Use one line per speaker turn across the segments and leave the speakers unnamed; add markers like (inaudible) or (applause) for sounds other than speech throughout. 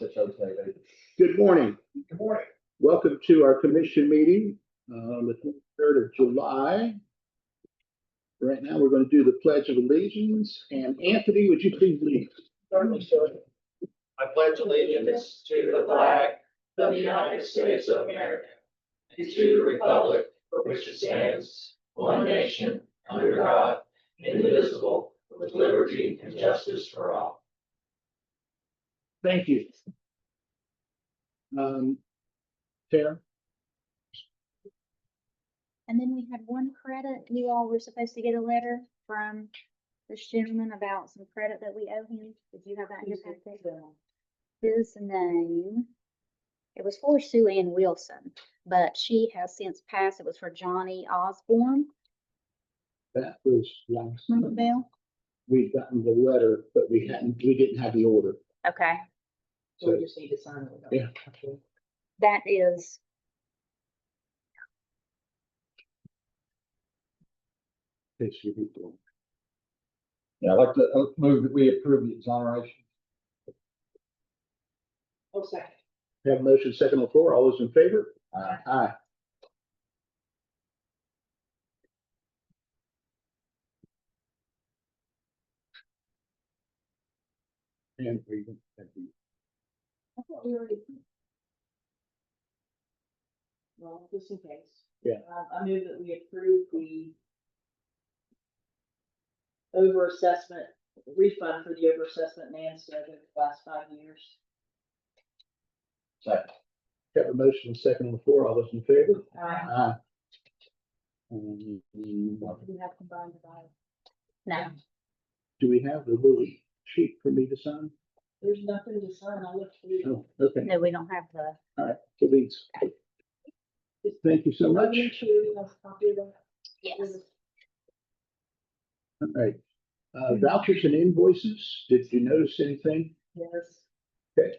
Good morning.
Good morning.
Welcome to our commission meeting uh, on the third of July. Right now, we're going to do the pledge of allegiance. And Anthony, would you please lead?
Certainly, sir. I pledge allegiance to the flag of the United States of America and to the republic for which it stands, one nation, under God, indivisible, with liberty and justice for all.
Thank you. Um, Tara?
And then we had one credit, you all were supposed to get a letter from this gentleman about some credit that we owe him. Did you have that in your packet? His name, it was for Sue Ann Wilson, but she has since passed. It was for Johnny Osborne,
That was last
remember
month.
Bill?
We'd gotten the letter, but we hadn't, we didn't have the order.
Okay,
So
So
we just need to sign it.
Yeah.
Okay.
that is,
it should be done.
Yeah, I'd like to uh, move that we approve the exoneration.
One second.
Have a motion second on the floor. All those in favor?
Aye.
Aye. And we,
I thought we already. approved. Well, just in case.
Yeah.
Um, I move that we approve the overassessment refund for the overassessment NAMSTED over the last five years.
Second.
have a motion second on the floor. All those in favor?
Uh,
Aye. Um, Do
we have combined by,
no,
we have the little sheet for me to sign?
there's nothing to sign, I looked through.
Oh, okay.
no, we don't have the,
Please. Thank you so much.
Make sure you have a copy of that.
yes.
All right. Uh,
Hmm.
vouchers and invoices. Did you notice anything?
Yes.
Okay.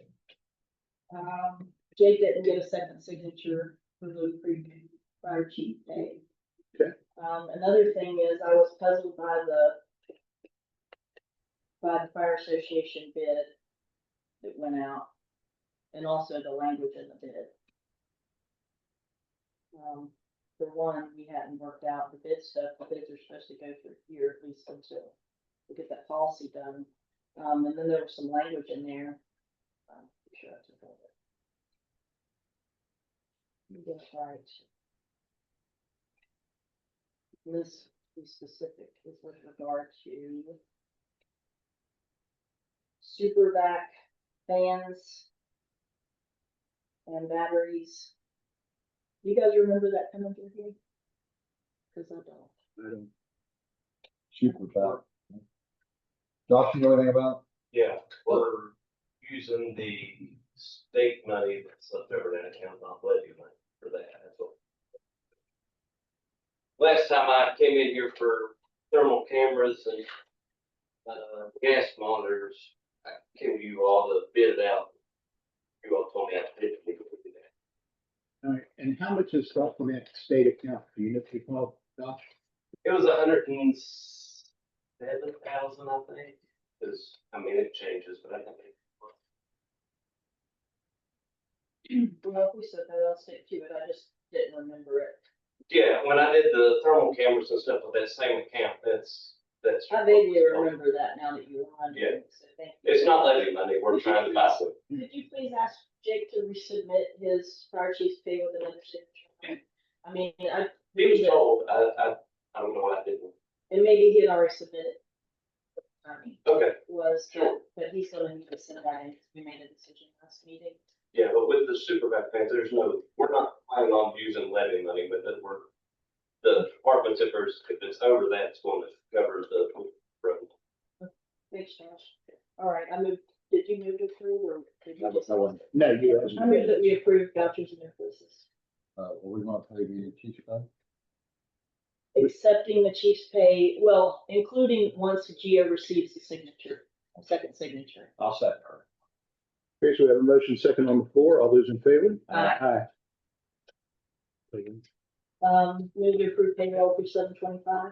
Um, Jay didn't get a second signature for the preview prior cheat day.
Okay.
Um, another thing is I was puzzled by the by the fire association bid that went out and also the language in the bid. Um, for one, we hadn't worked out the bid stuff. The bids are supposed to go through here at least until we get that policy done. Um, and then there was some language in there. um, I'm sure I took all of it. You get it right. This is specific, is with regard to super vac fans and batteries. You guys remember that coming through here? Cause I don't. (clears throat)
I don't.
Super power. Josh, you know anything about?
Yeah, we're using the state money that's left over in that account, not levy money for that, that's all. Last time I came in here for thermal cameras and, uh, gas monitors, I gave you all the bid it out. You all told me I didn't think we could do that.
All right, and how much is left on that state account? Do you know if you call, Josh?
It was a hundred and seven thousand, I think, because, I mean, it changes, but I think.
Well, if we said that, I'll stick to it, I just didn't remember it.
Yeah, when I did the thermal cameras and stuff with that same account, that's, that's.
I vaguely remember that now that you reminded me, so thank you.
It's not levy money, we're trying to buy some.
Could you please ask Jake to resubmit his fire chief's pay with another signature? I mean, I.
He was told, I, I, I don't know why I didn't.
And maybe he had already submitted. I mean,
Okay,
was, that, but he's gonna need to send that in, because we made a decision last meeting.
yeah, but with the super back things, there's no, we're not planning on using levy money, but that we're, the departments, if it's, if it's over that, it's going to cover the road.
Thanks, Josh. All right, I moved, did you move to approve or did you just?
No, you haven't.
I move that we approve vouchers and invoices,
Uh, well, we want to pay the teacher pay?
accepting the chief's pay, well, including once Gio receives the signature, second signature.
I'll second her.
Okay, so we have a motion second on the floor. All those in favor?
Aye.
Aye.
Um, move to approve payroll for seven twenty-five.